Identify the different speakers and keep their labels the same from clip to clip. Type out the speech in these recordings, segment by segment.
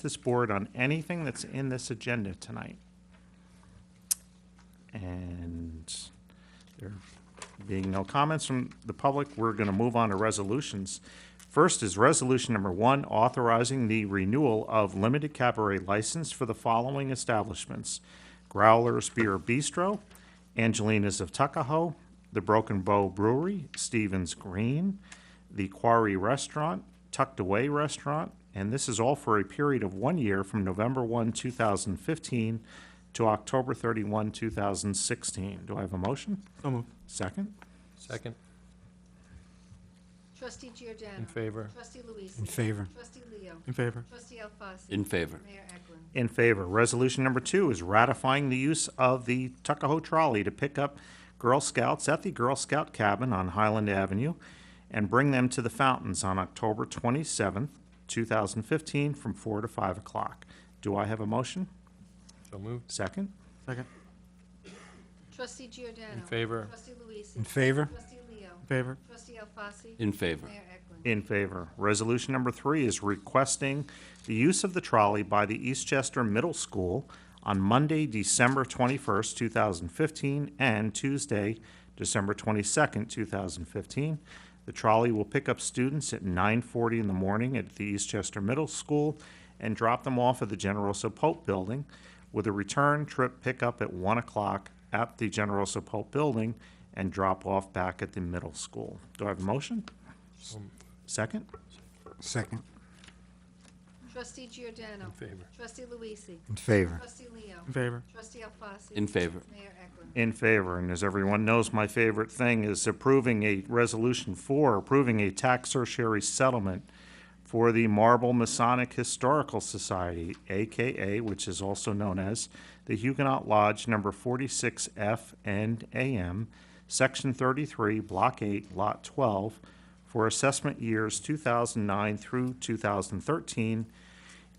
Speaker 1: this board on anything that's in this agenda tonight. And there being no comments from the public, we're going to move on to resolutions. First is Resolution Number One, authorizing the renewal of limited cabaret license for the following establishments: Growlers Beer Bistro, Angelina's of Tuckahoe, The Broken Bow Brewery, Stevens Green, The Quarry Restaurant, Tucked Away Restaurant, and this is all for a period of one year from November 1, 2015 to October 31, 2016. Do I have a motion?
Speaker 2: So moved.
Speaker 1: Second?
Speaker 3: Second,
Speaker 4: Trustee Giordano.
Speaker 3: in favor.
Speaker 4: Trustee Luise.
Speaker 2: In favor.
Speaker 4: Trustee Leo.
Speaker 2: In favor.
Speaker 4: Trustee Alfasi.
Speaker 5: In favor.
Speaker 4: Mayor Eklund.
Speaker 1: In favor. Resolution number two is ratifying the use of the Tuckahoe Trolley to pick up Girl Scouts at the Girl Scout Cabin on Highland Avenue and bring them to the fountains on October 27th, 2015, from 4 to 5 o'clock. Do I have a motion?
Speaker 3: So moved.
Speaker 1: Second?
Speaker 2: Second.
Speaker 4: Trustee Giordano.
Speaker 3: In favor.
Speaker 4: Trustee Luise.
Speaker 2: In favor.
Speaker 4: Trustee Leo.
Speaker 2: In favor.
Speaker 4: Trustee Alfasi.
Speaker 5: In favor.
Speaker 4: Mayor Eklund.
Speaker 1: In favor. Resolution number three is requesting the use of the trolley by the Eastchester Middle School on Monday, December 21st, 2015, and Tuesday, December 22nd, 2015. The trolley will pick up students at 9:40 in the morning at the Eastchester Middle School and drop them off at the General Pope Building with a return trip pickup at 1 o'clock at the General Pope Building and drop off back at the middle school. Do I have a motion? Second?
Speaker 2: Second.
Speaker 4: Trustee Giordano.
Speaker 3: In favor.
Speaker 4: Trustee Luise.
Speaker 2: In favor.
Speaker 4: Trustee Leo.
Speaker 2: In favor.
Speaker 4: Trustee Alfasi.
Speaker 5: In favor.
Speaker 4: Mayor Eklund.
Speaker 1: In favor, and as everyone knows, my favorite thing is approving a resolution for approving a tax surcharge settlement for the Marble Masonic Historical Society, AKA, which is also known as the Huguenot Lodge Number 46F and AM, Section 33, Block 8, Lot 12, for assessment years 2009 through 2013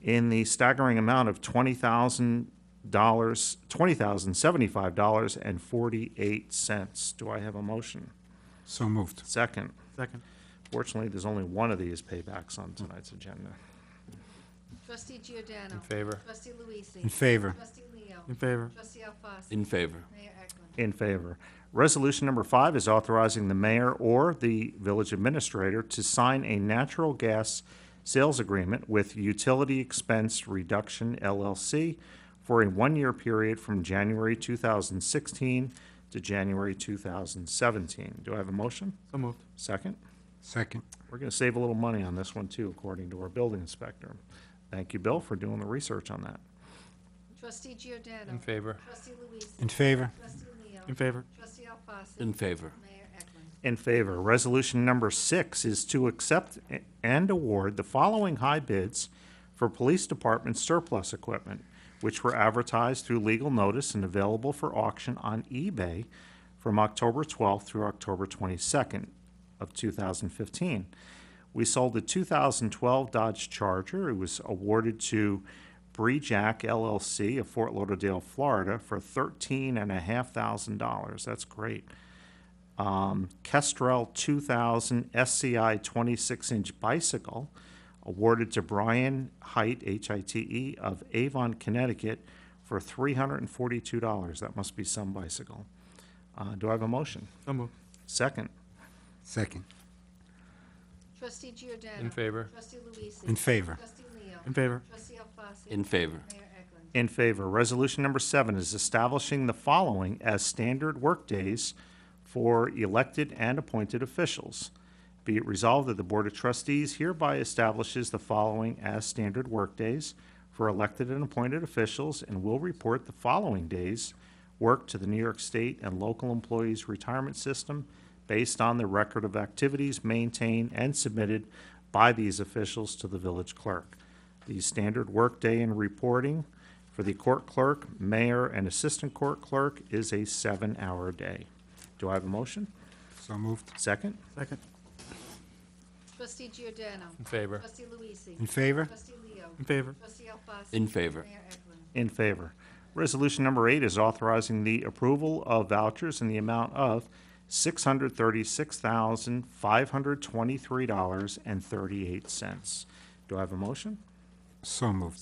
Speaker 1: in the staggering amount of twenty thousand dollars, twenty thousand seventy-five dollars and forty-eight cents. Do I have a motion?
Speaker 2: So moved.
Speaker 1: Second.
Speaker 2: Second.
Speaker 1: Fortunately, there's only one of these paybacks on tonight's agenda.
Speaker 4: Trustee Giordano.
Speaker 3: In favor.
Speaker 4: Trustee Luise.
Speaker 2: In favor.
Speaker 4: Trustee Leo.
Speaker 2: In favor.
Speaker 4: Trustee Alfasi.
Speaker 5: In favor.
Speaker 4: Mayor Eklund.
Speaker 1: In favor. Resolution number five is authorizing the mayor or the village administrator to sign a natural gas sales agreement with Utility Expense Reduction LLC for a one-year period from January 2016 to January 2017. Do I have a motion?
Speaker 2: So moved.
Speaker 1: Second?
Speaker 2: Second.
Speaker 1: We're going to save a little money on this one, too, according to our building inspector. Thank you, Bill, for doing the research on that.
Speaker 4: Trustee Giordano.
Speaker 3: In favor.
Speaker 4: Trustee Luise.
Speaker 2: In favor.
Speaker 4: Trustee Leo.
Speaker 2: In favor.
Speaker 4: Trustee Alfasi.
Speaker 5: In favor.
Speaker 4: Mayor Eklund.
Speaker 1: In favor. Resolution number six is to accept a- and award the following high bids for police department surplus equipment, which were advertised through legal notice and available for auction on eBay from October 12th through October 22nd of 2015. We sold the 2012 Dodge Charger. It was awarded to Brejack LLC of Fort Lauderdale, Florida for $13,500. That's great um, Kestrel 2000 SCI 26-inch bicycle awarded to Brian Height, H-I-T-E, E, of Avon, Connecticut, for $342. That must be some bicycle. Uh, Do I have a motion?
Speaker 2: So moved.
Speaker 1: Second.
Speaker 2: Second.
Speaker 4: Trustee Giordano.
Speaker 3: In favor.
Speaker 4: Trustee Luise.
Speaker 2: In favor.
Speaker 4: Trustee Leo.
Speaker 2: In favor.
Speaker 4: Trustee Alfasi.
Speaker 5: In favor.
Speaker 4: Mayor Eklund.
Speaker 1: In favor. Resolution number seven is establishing the following as standard workdays for elected and appointed officials. Be it resolved that the Board of Trustees hereby establishes the following as standard workdays for elected and appointed officials and will report the following days' work to the New York State and local employees' retirement system based on the record of activities maintained and submitted by these officials to the village clerk. The standard workday and reporting for the court clerk, mayor, and assistant court clerk is a seven-hour day. Do I have a motion?
Speaker 2: So moved.
Speaker 1: Second?
Speaker 2: Second.
Speaker 4: Trustee Giordano.
Speaker 3: In favor.
Speaker 4: Trustee Luise.
Speaker 2: In favor.
Speaker 4: Trustee Leo.
Speaker 2: In favor.
Speaker 4: Trustee Alfasi.
Speaker 5: In favor.
Speaker 4: Mayor Eklund.
Speaker 1: In favor. Resolution number eight is authorizing the approval of vouchers in the amount of $636,523.38. Do I have a motion?
Speaker 2: So moved.